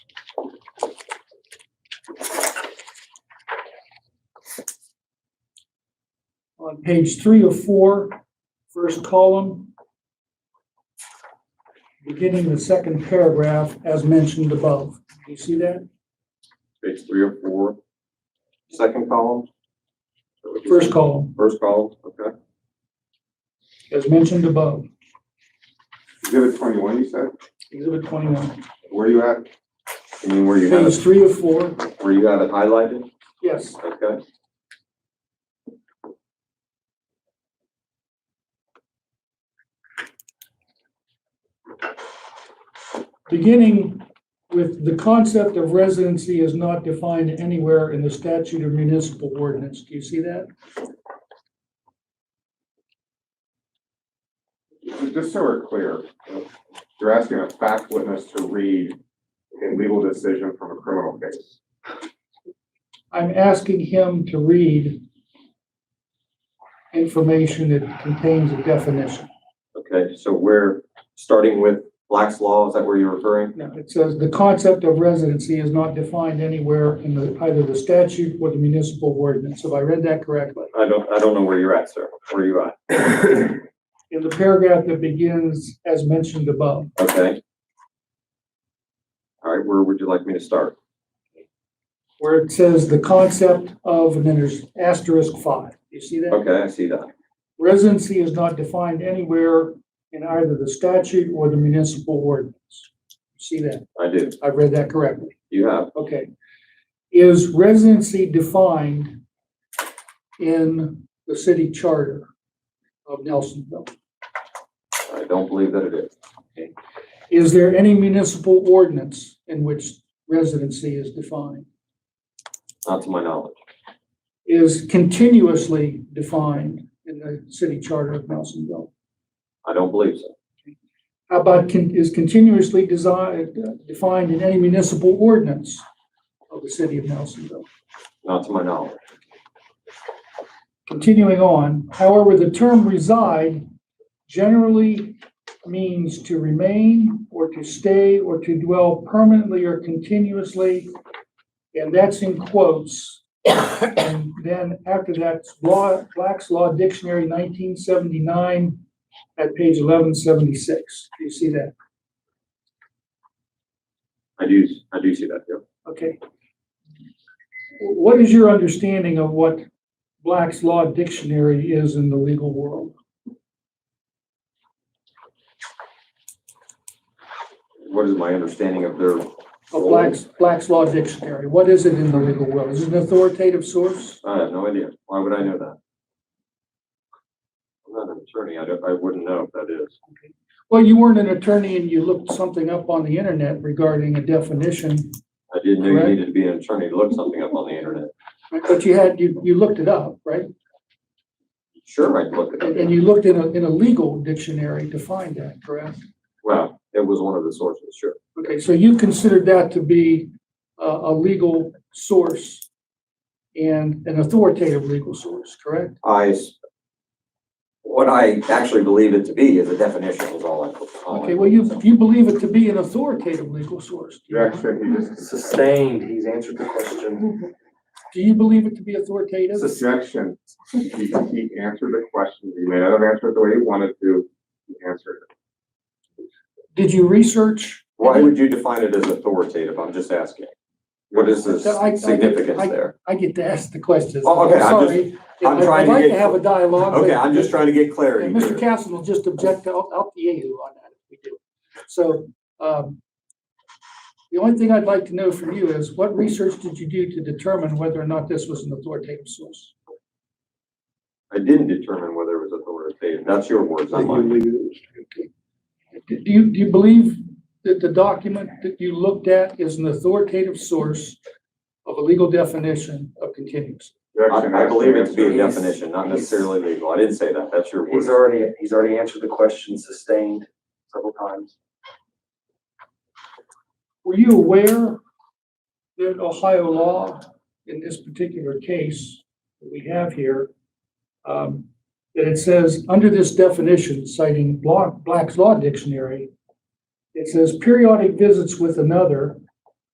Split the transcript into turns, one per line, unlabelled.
on page three of four, first column, beginning the second paragraph as mentioned above. Do you see that?
page three or four, second column?
First column,
First column, okay.
as mentioned above,
Exhibit twenty-one, you said?
exhibit twenty-one,
Where you at? I mean, where you had
page
it,
three of four,
where you had it highlighted,
yes,
okay?
beginning with the concept of residency is not defined anywhere in the statute or municipal ordinance. Do you see that?
Just so we're clear, you're asking a fact witness to read a legal decision from a criminal case.
I'm asking him to read information that contains a definition.
Okay, so we're starting with Black's Law, is that where you're referring?
No, it says the concept of residency is not defined anywhere in the, either the statute or the municipal ordinance. Have I read that correctly?
I don't, I don't know where you're at, sir. Where are you at?
In the paragraph that begins as mentioned above,
Okay. All right, where would you like me to start?
where it says the concept of, and then there's asterisk five. You see that?
Okay, I see that.
Residency is not defined anywhere in either the statute or the municipal ordinance. See that?
I do.
I've read that correctly.
You have,
Okay. Is residency defined in the city charter of Nelsonville?
I don't believe that it is.
Is there any municipal ordinance in which residency is defined?
Not to my knowledge.
Is continuously defined in the city charter of Nelsonville?
I don't believe so.
How about con- is continuously designed, defined in any municipal ordinance of the city of Nelsonville?
Not to my knowledge.
Continuing on, however, the term reside generally means to remain or to stay or to dwell permanently or continuously. And that's in quotes. And then after that, law, Black's Law Dictionary nineteen seventy-nine at page eleven seventy-six. Do you see that?
I do, I do see that, yeah.
Okay. What is your understanding of what Black's Law Dictionary is in the legal world?
What is my understanding of their,
Of Black's, Black's Law Dictionary, what is it in the legal world? Is it an authoritative source?
I have no idea. Why would I know that? I'm not an attorney. I don't, I wouldn't know if that is.
Well, you weren't an attorney and you looked something up on the internet regarding a definition,
I didn't know you
Correct.
needed to be an attorney to look something up on the internet.
but you had, you, you looked it up, right?
Sure, I'd look it
And,
up.
and you looked in a, in a legal dictionary to find that, correct?
Well, it was one of the sources, sure.
Okay, so you considered that to be a, a legal source and an authoritative legal source, correct?
I, s- what I actually believe it to be is a definition is all I. all I-
Okay, well, you, you believe it to be an authoritative legal source. do you not?
you just.
Sustained, he's answered the question.
Do you believe it to be authoritative?
Objection. He, he answered the question. He may not have answered it the way he wanted to. He answered it.
Did you research?
Why would you define it as authoritative? I'm just asking. What is the
I- I-
s- significance
I-
there?
I get to ask the questions.
Oh, okay, I'm just-
Sorry.
I'm
I'd-
trying to
I'd like
get-
to have a dialogue. but-
Okay, I'm just trying to get
And
clarity
Mr.
here.
Castle will just object to out out the yahoo on that if we do. So, um, the only thing I'd like to know from you is what research did you do to determine whether or not this was an authoritative source?
I didn't determine whether it was authoritative. That's your words, not mine.
Do you, do you believe that the document that you looked at is an authoritative source of a legal definition of continuous?
I, I believe it to be a
He's-
definition, not
he's-
necessarily legal. I didn't say that. That's your
He's
words.
already, he's already answered the question sustained several times.
Were you aware that Ohio law, in this particular case that we have here, um, that it says, under this definition, citing Bla- Black's Law Dictionary, it says periodic visits with another